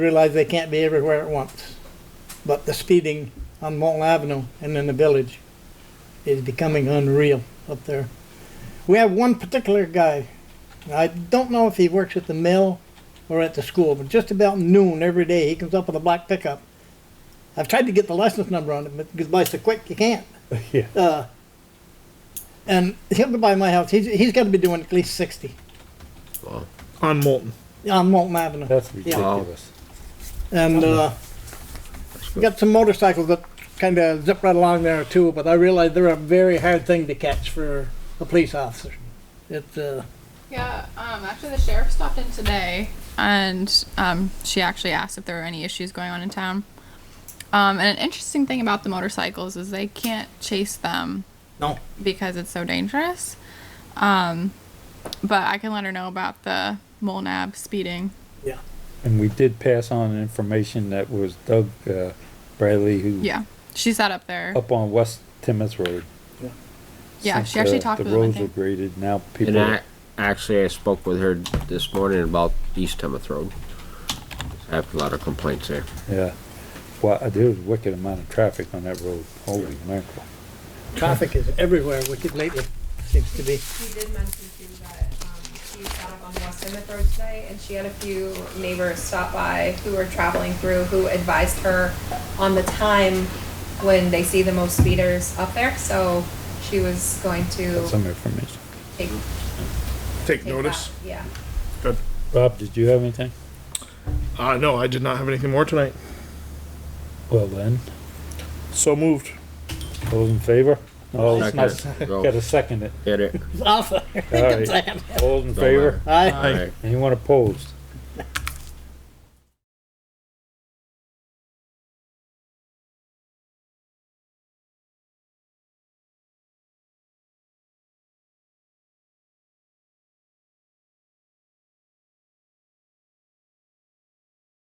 realize they can't be everywhere at once. But the speeding on Walton Avenue and in the village is becoming unreal up there. We have one particular guy. I don't know if he works at the mill or at the school, but just about noon every day he comes up with a black pickup. I've tried to get the license number on it, but because by so quick you can't. Yeah. Uh, and he'll be by my house. He's, he's got to be doing at least 60 On Molten. on Walton Avenue. That's Yeah. ridiculous. And uh, we got some motorcycles that kind of zip right along there too, but I realize they're a very hard thing to catch for a police officer. It's, uh, Yeah, um, actually, the sheriff stopped in today, and um, she actually asked if there were any issues going on in town. Um, and an interesting thing about the motorcycles is they can't chase them no, because it's so dangerous. Um, but I can let her know about the Molnab speeding. yeah. And we did pass on information that was Doug uh, Bradley, who Yeah, she sat up there. up on West Timoth Road. yeah, since, she actually uh, talked the with him. I roads are think. graded now. And People I, actually, I spoke with her this morning about East Timoth Road. I have a lot of complaints there. yeah. Well, uh, there was a wicked amount of traffic on that road. Holy mackerel! Traffic is everywhere wicked lately, seems to be. She did mention too that um, she sat up on West Emmett Road today, and she had a few neighbors stop by who were traveling through who advised her on the time when they see the most speeders up there. So she was going Got to some information. take, Take take notice. that. Yeah. Good. Rob, did you have anything? Uh, no, I did not have anything more tonight. Well then, So moved. those in favor? No, it's not. Second. Go. Got to second it. Hit it. It's awful. All right. All in favor? I, All right. Anyone opposed?